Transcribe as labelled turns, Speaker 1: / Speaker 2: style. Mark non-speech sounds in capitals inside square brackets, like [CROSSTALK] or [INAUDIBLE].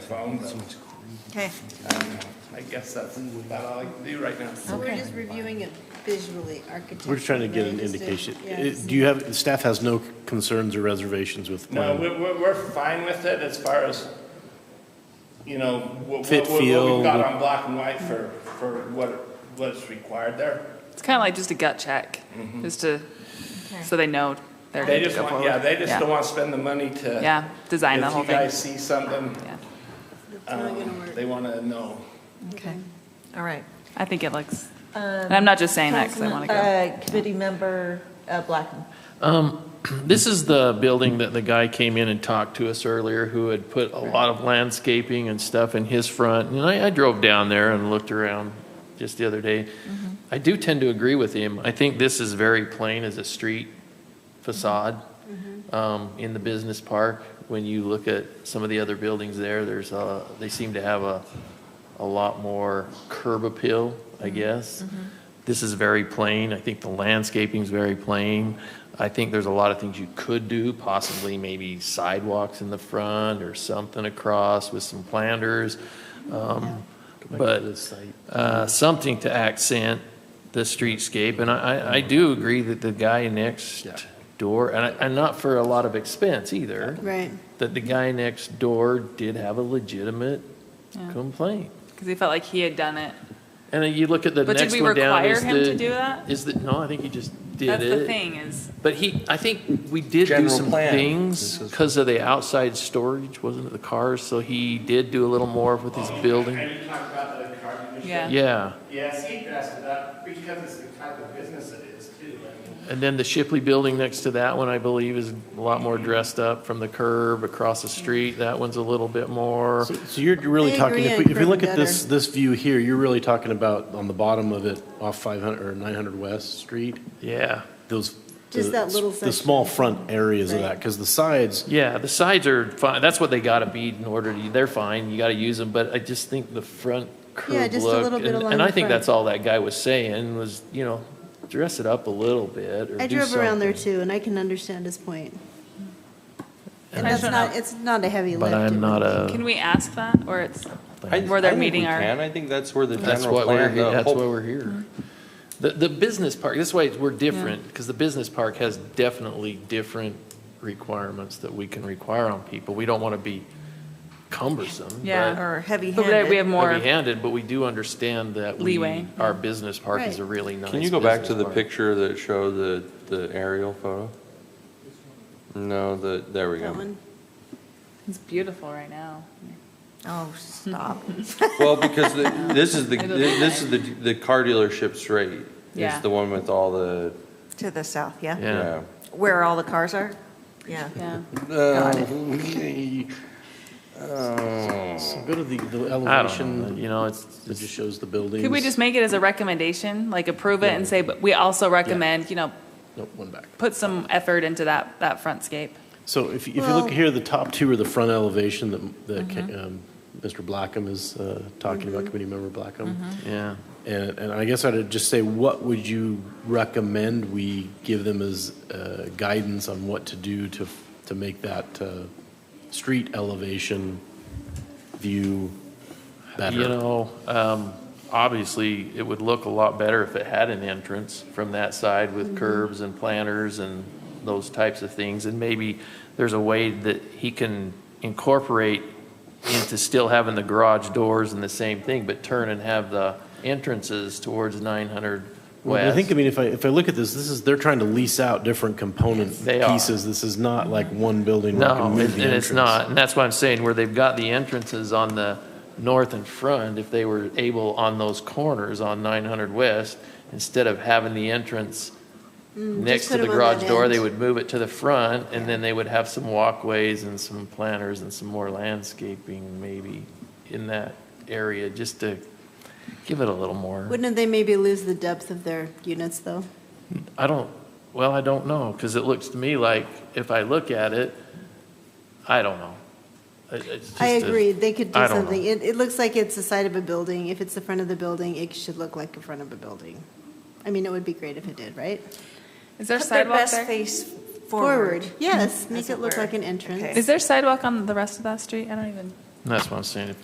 Speaker 1: phone, but
Speaker 2: Okay,
Speaker 1: I don't know. I guess that's about all I can do right now.
Speaker 3: So we're
Speaker 2: Okay.
Speaker 3: just reviewing it visually, architecturally.
Speaker 4: We're just trying to get an
Speaker 3: right? Just to-
Speaker 4: indication.
Speaker 3: yeah,
Speaker 4: Uh, Do you have, staff has no concerns or reservations with the
Speaker 1: No,
Speaker 4: plan?
Speaker 1: we're, we're, we're fine with it as far as, you know, what,
Speaker 4: Fit
Speaker 1: what, what we've
Speaker 4: feel.
Speaker 1: got on black and white for, for what, what's required there.
Speaker 5: It's kind of like just a gut check, just to, so they know they're
Speaker 1: They
Speaker 5: good to
Speaker 1: just
Speaker 5: go
Speaker 1: want,
Speaker 5: forward.
Speaker 1: yeah, they just don't want to spend the money to.
Speaker 5: Yeah, design the whole
Speaker 1: If you
Speaker 5: thing.
Speaker 1: guys see something,
Speaker 5: Yeah,
Speaker 3: It's not gonna
Speaker 1: um,
Speaker 3: work.
Speaker 1: they want to know.
Speaker 2: okay, all right.
Speaker 5: I think it looks,
Speaker 2: Um,
Speaker 5: and I'm not just saying that because I want to go.
Speaker 2: Uh, Committee member uh, Blackman.
Speaker 6: Um, This is the building that the guy came in and talked to us earlier, who had put a lot of landscaping and stuff in his front. And I, I drove down there and looked around just the other day. I do tend to agree with him. I think this is very plain as a street facade um, in the business park. When you look at some of the other buildings there, there's a, they seem to have a, a lot more curb appeal, I guess. This is very plain. I think the landscaping's very plain. I think there's a lot of things you could do, possibly maybe sidewalks in the front or something across with some planters. Um, But uh, something to accent the streetscape. And I, I- I do agree that the guy next door, and I- and not for a lot of expense either,
Speaker 3: Right.
Speaker 6: that the guy next door did have a legitimate complaint.
Speaker 2: uh,
Speaker 5: Because he felt like he had done it.
Speaker 6: And then you look at the
Speaker 5: But did
Speaker 6: next
Speaker 5: we
Speaker 6: one down.
Speaker 5: require
Speaker 6: is
Speaker 5: him to
Speaker 6: the-
Speaker 5: do that?
Speaker 6: Is that, no, I think he just did it.
Speaker 5: That's the thing is,
Speaker 6: But he, I think we did do
Speaker 7: General
Speaker 6: some
Speaker 7: plan.
Speaker 6: things
Speaker 7: This is-
Speaker 6: because of the outside storage, wasn't it, the cars? So he did do a little more with his building.
Speaker 1: And you talk about the car dealership.
Speaker 5: Yeah.
Speaker 6: Yeah.
Speaker 1: Yeah, Steve asked it up because it's the type of business it is too. I mean,
Speaker 6: And then the Shipley building next to that one, I believe, is a lot more dressed up from the curb across the street. That one's a little bit more.
Speaker 4: So so you're really
Speaker 3: I
Speaker 4: talking,
Speaker 3: agree
Speaker 4: if
Speaker 3: on
Speaker 4: we, if we
Speaker 3: curb
Speaker 4: look at
Speaker 3: gutter.
Speaker 4: this, this view here, you're really talking about on the bottom of it off 500 or 900 West Street,
Speaker 6: Yeah.
Speaker 4: those.
Speaker 3: Just
Speaker 4: the-
Speaker 3: that little
Speaker 4: The
Speaker 3: section.
Speaker 4: small front areas of
Speaker 3: Right.
Speaker 4: that, because the sides,
Speaker 6: Yeah, the sides are fine. That's what they gotta be in order to, they're fine. You gotta use them, but I just think the front curb
Speaker 3: Yeah,
Speaker 6: look.
Speaker 3: just a little bit
Speaker 6: and-
Speaker 3: along
Speaker 6: And
Speaker 3: the
Speaker 6: I think
Speaker 3: front.
Speaker 6: that's all that guy was saying was, you know, dress it up a little bit or do
Speaker 3: I
Speaker 6: something.
Speaker 3: drove around there too, and I can understand his point. And that's not, it's not a heavy lift.
Speaker 6: But I'm not
Speaker 5: can
Speaker 6: a,
Speaker 5: we ask that or it's,
Speaker 7: I-
Speaker 5: where
Speaker 7: I
Speaker 5: they're
Speaker 7: think
Speaker 5: meeting
Speaker 7: we
Speaker 5: our-
Speaker 7: can. I think that's where the
Speaker 6: that's
Speaker 7: general
Speaker 6: what we're,
Speaker 7: plan,
Speaker 6: he-
Speaker 7: the
Speaker 6: that's why
Speaker 7: whole,
Speaker 6: we're here. The, the business park, that's why we're different, because the business park has definitely different requirements that we can require on people. We don't wanna be cumbersome.
Speaker 5: Yeah.
Speaker 2: Or
Speaker 5: but we- we
Speaker 2: heavy-handed.
Speaker 5: have more,
Speaker 6: heavy-handed, but we do understand that we,
Speaker 5: Leeway.
Speaker 6: our business park is a really nice.
Speaker 7: can you go back to
Speaker 6: business
Speaker 7: the
Speaker 6: park.
Speaker 7: picture that showed the, the aerial photo? No, the, there we
Speaker 3: That
Speaker 7: go.
Speaker 3: one.
Speaker 5: it's beautiful right now.
Speaker 2: Oh, stop.
Speaker 7: Well, because
Speaker 5: [LAUGHS]
Speaker 7: the- this is the,
Speaker 5: It'll be
Speaker 7: this is the, the car dealership straight.
Speaker 5: Yeah.
Speaker 7: It's the one with all the,
Speaker 2: [LAUGHS] To the south, yeah?
Speaker 6: Yeah.
Speaker 7: yeah.
Speaker 2: Where all the cars are? Yeah.
Speaker 5: Yeah.
Speaker 7: Oh.
Speaker 4: go to the the
Speaker 6: I don't know,
Speaker 4: elevation,
Speaker 6: you know, it's,
Speaker 4: it
Speaker 6: it's
Speaker 4: just shows the buildings.
Speaker 5: Could we just make it as a recommendation, like approve it and say, but we also recommend, you know,
Speaker 4: Nope, one back.
Speaker 5: put some effort into that, that frontscape.
Speaker 4: So if, if you
Speaker 3: Well-
Speaker 4: look here, the top two are the front elevation that, that ca- um, Mr. Blackham is uh, talking about, committee member Blackham.
Speaker 6: yeah.
Speaker 4: And, and I guess I'd just say, what would you recommend we give them as uh, guidance on what to do to, to make that uh, street elevation view
Speaker 6: You
Speaker 4: better?
Speaker 6: know, um, obviously, it would look a lot better if it had an entrance from that side with curbs and planters and those types of things. And maybe there's a way that he can incorporate into still having the garage doors and the same thing, but turn and have the entrances towards 900
Speaker 4: Well, I
Speaker 6: West.
Speaker 4: think, I mean, if I, if I look at this, this is, they're trying to lease out different component
Speaker 6: They are.
Speaker 4: pieces. This is not like one building where I can
Speaker 6: No,
Speaker 4: move
Speaker 6: it-
Speaker 4: the
Speaker 6: and it's
Speaker 4: entrance.
Speaker 6: not, and that's why I'm saying where they've got the entrances on the north and front, if they were able on those corners on 900 West, instead of having the entrance next
Speaker 3: Mm, just
Speaker 6: to
Speaker 3: put
Speaker 6: the
Speaker 3: 'em on
Speaker 6: garage
Speaker 3: that
Speaker 6: door,
Speaker 3: end.
Speaker 6: they would move it to the front, and then they would have some walkways and some planters and some more landscaping maybe in that area, just to give it a little more.
Speaker 3: Wouldn't they maybe lose the depth of their units, though?
Speaker 6: I don't, well, I don't know, because it looks to me like, if I look at it, I don't know. It- it's
Speaker 3: I
Speaker 6: just a-
Speaker 3: agree, they could do
Speaker 6: I don't know.
Speaker 3: something. It, it looks like it's the side of a building. If it's the front of the building, it should look like the front of a building. I mean, it would be great if it did, right?
Speaker 5: Is there
Speaker 2: Put their
Speaker 5: sidewalk
Speaker 2: best
Speaker 5: there?
Speaker 2: face forward.
Speaker 3: Yes, make
Speaker 2: As
Speaker 3: it
Speaker 2: it
Speaker 3: look
Speaker 2: were.
Speaker 3: like an
Speaker 2: Okay.
Speaker 3: entrance.
Speaker 5: Is there sidewalk on the rest of that street? I don't even,
Speaker 6: And that's what I'm saying, if